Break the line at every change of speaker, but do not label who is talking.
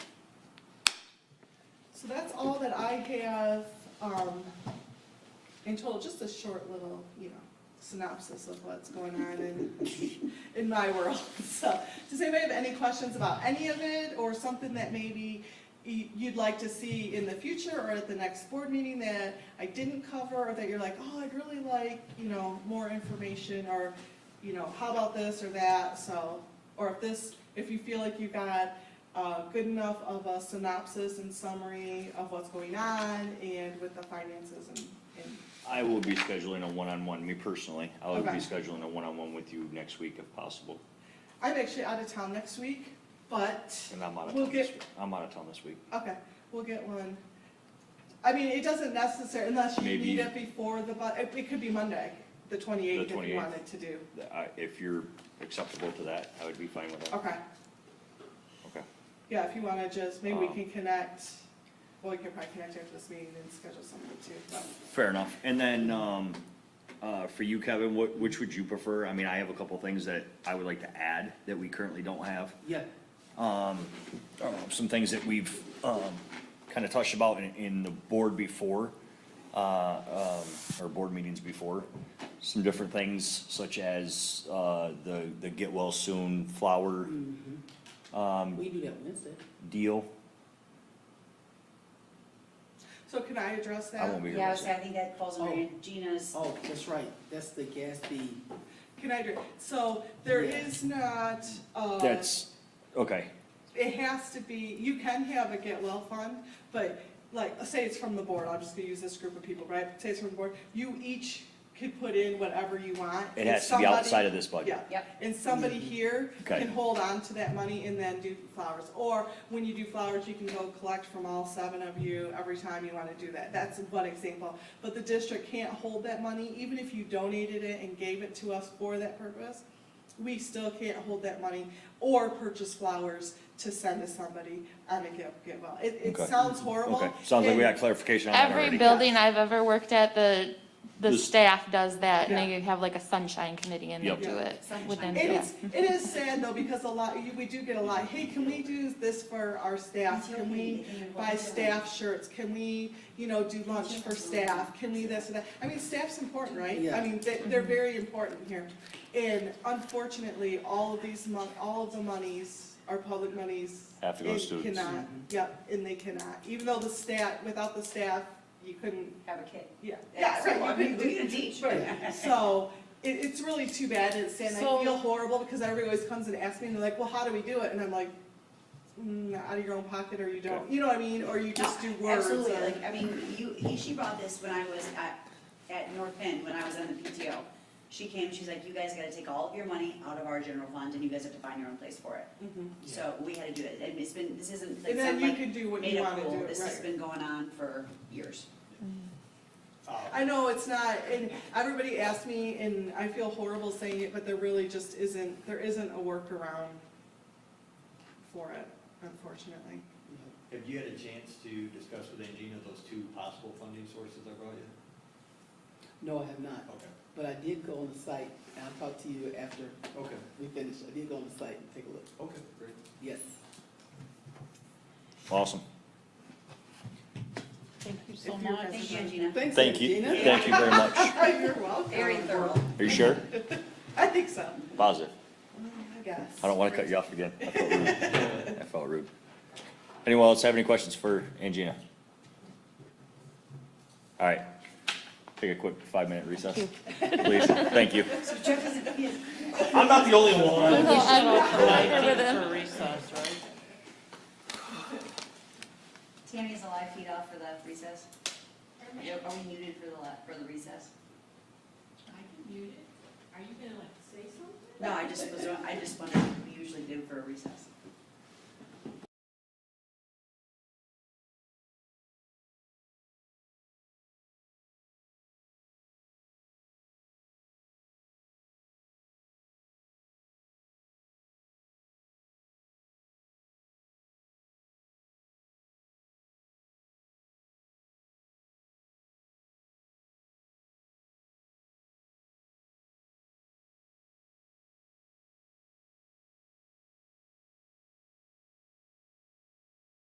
So that's all that I have, um, in total, just a short little, you know, synopsis of what's going on in, in my world. So, does anybody have any questions about any of it, or something that maybe y- you'd like to see in the future, or at the next board meeting that I didn't cover, or that you're like, oh, I'd really like, you know, more information, or, you know, how about this or that, so, or if this, if you feel like you got uh, good enough of a synopsis and summary of what's going on and with the finances and, and,
I will be scheduling a one-on-one, me personally. I will be
Okay.
scheduling a one-on-one with you next week if possible.
I'm actually out of town next week, but,
And I'm out of
We'll
town this
get-
week. I'm out of town this week.
okay, we'll get one. I mean, it doesn't necessarily, unless you
Maybe-
need it before the, bu- it, it could be Monday, the twenty-eighth,
The
if you
28th.
wanted to do,
Th- I- If you're acceptable to that, I would be fine with that.
okay.
Okay.
Yeah, if you wanna just, maybe we
Um,
can connect, well, we can probably connect after this meeting and schedule something too, but.
Fair enough. And then, um, uh, for you, Kevin, what, which would you prefer? I mean, I have a couple things that I would like to add that we currently don't have.
Yeah.
uh, some things that we've kind of touched about in, in the board before, uh, um, or board meetings before. Some different things such as uh, the, the get well soon flower
Mm.
We do that Wednesday.
deal.
So can I address that?
I won't be here.
Yeah, I was
next
I think that falls under Gina's,
Oh, that's right, that's the gas fee.
Can I, address- so there
Yeah.
is not, uh.
week. That's, okay,
it has to be, you can have a get well fund, but like, let's say it's from the board, I'm just gonna use this group of people, right? Say it's from the board, you each could put in whatever you want.
it has to be outside of this budget. Mm-hmm.
Yeah,
yep,
and somebody here
Okay.
can hold on to that money and then do flowers. Or when you do flowers, you can go collect from all seven of you every time you wanna do that. That's one example. But the district can't hold that money, even if you donated it and gave it to us for that purpose. We still can't hold that money or purchase flowers to send to somebody on a get, get well. It, it
Okay.
sounds horrible.
Okay, sounds like we
and-
got clarification on that
Every
already.
building I've ever worked at, the, the
The-
staff does that, and
Yeah.
they have like a sunshine committee, and they
Yep.
do
Yeah.
it within,
It
yeah.
is, it is sad though, because a lot, you- we do get a lot, hey, can we do this for our staff? Can we buy staff shirts? Can we, you know, do lunch for staff? Can we this and that? I mean, staff's important, right? I
Yeah.
mean, they, they're very important here. And unfortunately, all of these mon, all of the monies are public monies.
Have to go to
and
students.
Cannot, yep, and they cannot, even though the staff, without the staff, you couldn't,
have a kid.
yeah.
That's
right, you
so, I mean,
couldn't do-
we can teach.
Right, so it, it's really too bad and it's sad, and I
So-
feel horrible because everybody always comes and asks me and they're like, well, how do we do it? And I'm like, mm, out of your own pocket or you don't, you know what I mean, or you just do
No,
words.
Absolutely,
or-
like, I mean, you, he, she brought this when I was at, at North Penn, when I was on the PTO. She came, she's like, you guys gotta take all of your money out of our general fund and you guys have to find your own place for it.
Mhm.
So we had to do it, and it's been, this isn't like
And then
some
you
like
can do what
made
you
up
wanna
rule,
do,
this has
right?
been going on for years.
Oh.
I know it's not, and everybody asks me and I feel horrible saying it, but there really just isn't, there isn't a workaround for it, unfortunately.
Have you had a chance to discuss with Angina those two possible funding sources I brought you?
No, I have not,
Okay.
but I did go on the site, and I'll talk to you after
Okay,
we finish. I did go on the site and take a look.
okay, great.
Yes.
Awesome.
Thank you
so If you're much.
Thank you, Gina.
Thanks,
Thank you,
Regina.
thank you very much. Are
Oh, You're welcome.
Very thorough.
you sure?
I think so, Mm,
Positive.
I guess.
I don't want to cut you off again. I felt rude. I felt rude. Anyone else have any questions for Angina? All right. Take a quick five-minute recess, please. Thank you.
So Jeff is, yes.
I'm not the only one.
Tammy is a live feed off for the recess? Yep, are we muted for the, la- for the recess?
I can mute it. Are you gonna like say something?
No, I just was, I just wondered what we usually do for a recess.